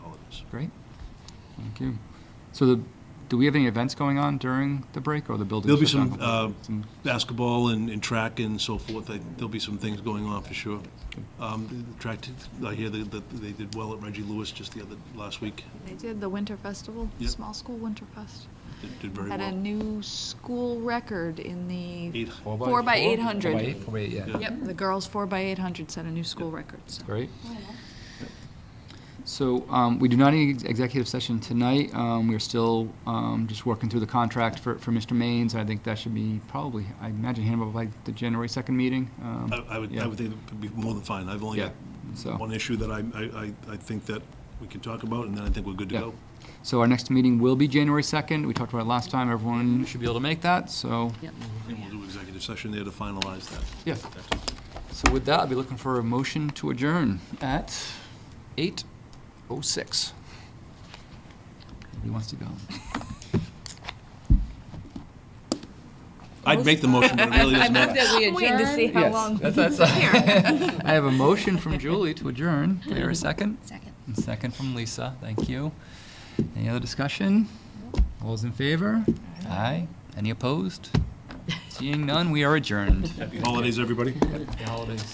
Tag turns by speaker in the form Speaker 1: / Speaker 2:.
Speaker 1: yes.
Speaker 2: Great. Thank you. So the, do we have any events going on during the break or the building?
Speaker 1: There'll be
Speaker 2: shut down
Speaker 1: some uh,
Speaker 2: completely? Some-
Speaker 1: basketball and and track and so forth. I- There'll be some things going on for sure. Um, the- the Track, t- I hear that that they did well at Reggie Lewis just the other, last week.
Speaker 3: They did the Winter Festival,
Speaker 1: Yep.
Speaker 3: Small School Winter Fest.
Speaker 1: Did- Did very
Speaker 3: Had a
Speaker 1: well.
Speaker 3: new school record in the,
Speaker 1: Eight.
Speaker 3: Four by eight hundred.
Speaker 4: Four by eight, four by eight, yeah.
Speaker 3: yep, the girls four by eight hundred set a new school record, so.
Speaker 2: Great. So um, we do not need ex- executive session tonight. Um, We're still um, just working through the contract for, for Mr. Maines. I think that should be probably, I imagine, handled by the January 2nd meeting. Um,
Speaker 1: I I would, I
Speaker 2: Yeah.
Speaker 1: would think it'd be more than fine. I've only
Speaker 2: Yeah,
Speaker 1: got
Speaker 2: so.
Speaker 1: one issue that I, I, I- I think that we can talk about, and then I think we're good to
Speaker 2: Yeah.
Speaker 1: go.
Speaker 2: So our next meeting will be January 2nd. We talked about it last time. Everyone should be able to make that, so.
Speaker 1: And we'll do executive session there to finalize that.
Speaker 2: Yeah. So with that, I'll be looking for a motion to adjourn at 8:06. Nobody wants to go.
Speaker 1: I'd make the motion, but it really doesn't matter.
Speaker 3: I'm waiting to see how
Speaker 2: Yes,
Speaker 3: long.
Speaker 2: that's- that's- uh, I have a motion from Julie to adjourn. Do I hear a second?
Speaker 5: Second.
Speaker 2: And second from Lisa. Thank you. Any other discussion? All those in favor? Aye. Any opposed? Seeing none, we are adjourned.
Speaker 1: Happy holidays, everybody.
Speaker 2: Happy holidays.